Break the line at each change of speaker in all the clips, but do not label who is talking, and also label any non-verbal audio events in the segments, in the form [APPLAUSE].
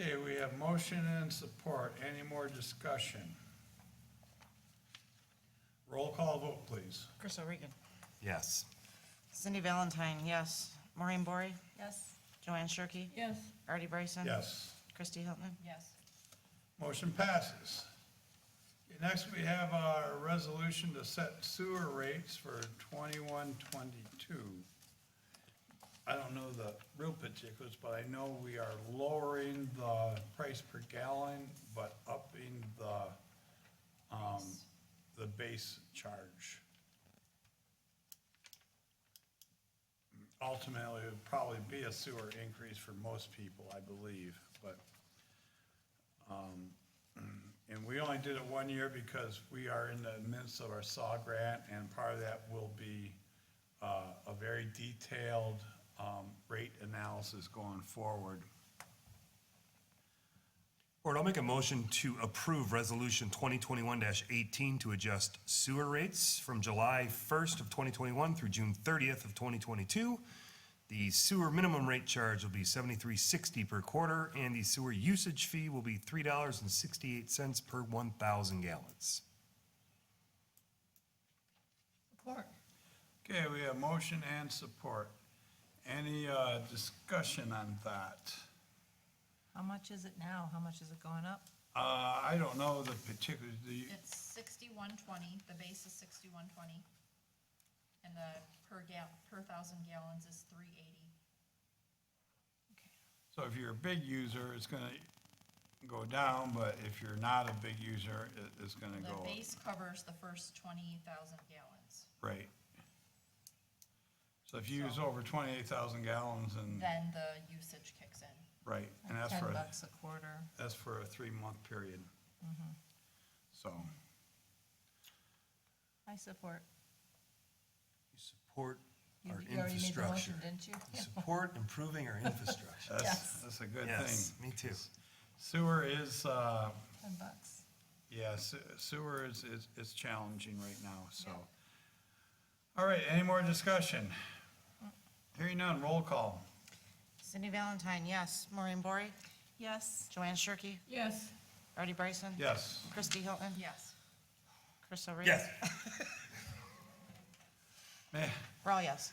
Okay, we have motion and support. Any more discussion? Roll call vote, please.
Chris O'Regan.
Yes.
Cindy Valentine, yes. Maureen Bory.
Yes.
Joanne Shirkey.
Yes.
Artie Bryson.
Yes,
Christy Hilton.
Yes.
motion passes. Okay, Next, we have our resolution to set sewer rates for twenty-one, twenty-two. I don't know the real particulars, but I know we are lowering the price per gallon, but upping the, um, the base charge. Ultimately, it would probably be a sewer increase for most people, I believe, but, um, and we only did it one year because we are in the midst of our SAW grant, and part of that will be, uh, a very detailed, um, rate analysis going forward.
Board, I'll make a motion to approve Resolution 2021-18 to adjust sewer rates from July 1st of 2021 through June 30th of 2022. The sewer minimum rate charge will be $73.60 per quarter, and the sewer usage fee will be $3.68 per 1,000 gallons.
Support.
Okay, we have motion and support. Any, uh, discussion on that?
How much is it now? How much is it going up?
Uh, I don't know the particulars, the,
It's sixty-one twenty, the base is sixty-one twenty, and the per gal, per thousand gallons is three eighty.
so if you're a big user, it's gonna go down, but if you're not a big user, it, it's gonna
The
go up.
base covers the first twenty thousand gallons,
Right. So if you use over twenty-eight thousand gallons and,
then the usage kicks in.
right, and that's
Ten
for, a-
bucks Mm-hmm. a quarter.
that's for a three-month period. So,
I support.
You support
You
our
you already made the
infrastructure.
motion, Didn't you?
You support improving our
[LAUGHS]
infrastructure.
that's,
Yes.
that's a good
Yes,
thing.
me too.
Sewer is, uh,
Ten bucks.
yeah, se- sewer is, is, is challenging right now, so.
Yeah.
All right, any more discussion?
Mm.
Hearing none, roll call.
Cindy Valentine, yes. Maureen Bory.
Yes.
Joanne Shirkey.
Yes.
Artie Bryson.
Yes.
Christy Hilton.
[LAUGHS]
Yes.
Chris O'Regan.
Yes.
Man,
We're all yes.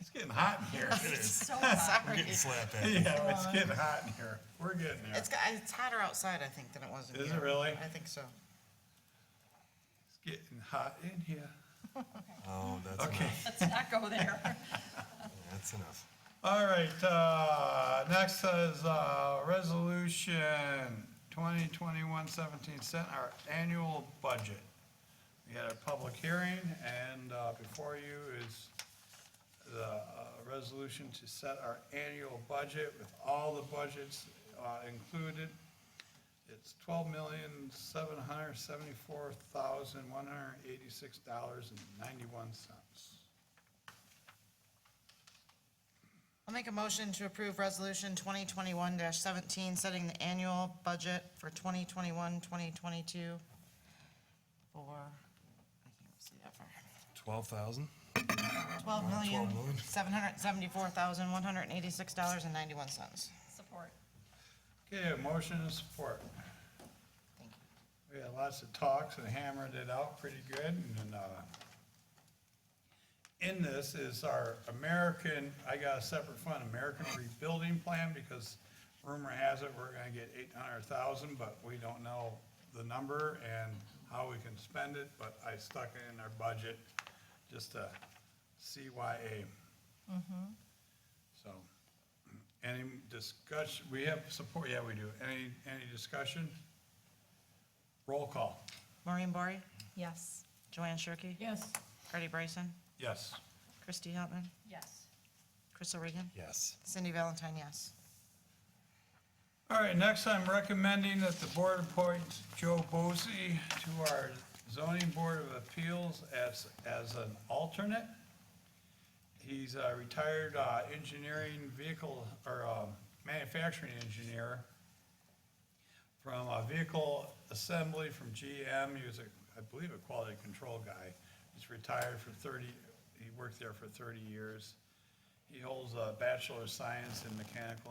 it's getting hot in
[LAUGHS]
here. [LAUGHS]
It is. [LAUGHS]
So, uh,
We're
Sorry.
getting slapped at.
Yeah, it's getting hot in here. We're getting there.
It's, got- it's hotter outside, I think, than it was in here.
Is it really?
I think so.
It's getting hot in here.
Oh, that's
Okay.
enough.
Let's not go there.
That's enough.
All right, uh, next is, uh, resolution 2021-17, set our annual budget. We had a public hearing, and, uh, before you is the, uh, resolution to set our annual budget with all the budgets, uh, included. It's twelve million, seven hundred seventy-four thousand, one hundred eighty-six dollars and ninety-one cents.
I'll make a motion to approve Resolution 2021-17, setting the annual budget for 2021, 2022 for, I can't see that far.
12,000?
Twelve million,
Twelve million.
seven hundred seventy-four thousand, one hundred eighty-six dollars and ninety-one cents.
support.
Okay, motion and support.
Thank you.
We had lots of talks and hammered it out pretty good, and, then, uh, in this is our American, I got a separate fund, American Rebuilding Plan, because rumor has it we're gonna get eight hundred thousand, but we don't know the number and how we can spend it, but I stuck it in our budget, just a CYA.
Mm-hmm.
So, any discussion, we have support, yeah, we do. Any, any discussion? Roll call.
Maureen Bory,
Yes.
Joanne Shirkey,
Yes.
Artie Bryson,
Yes.
Christy Hilton,
Yes.
Chris O'Regan,
Yes.
Cindy Valentine, yes.
All right, next I'm recommending that the board appoint Joe Bosey to our zoning board of appeals as, as an alternate. He's a retired uh, engineering vehicle, or um, manufacturing engineer from a vehicle assembly from GM. He was a, I believe, a quality control guy. He's retired for 30, he worked there for 30 years. He holds a bachelor of science in mechanical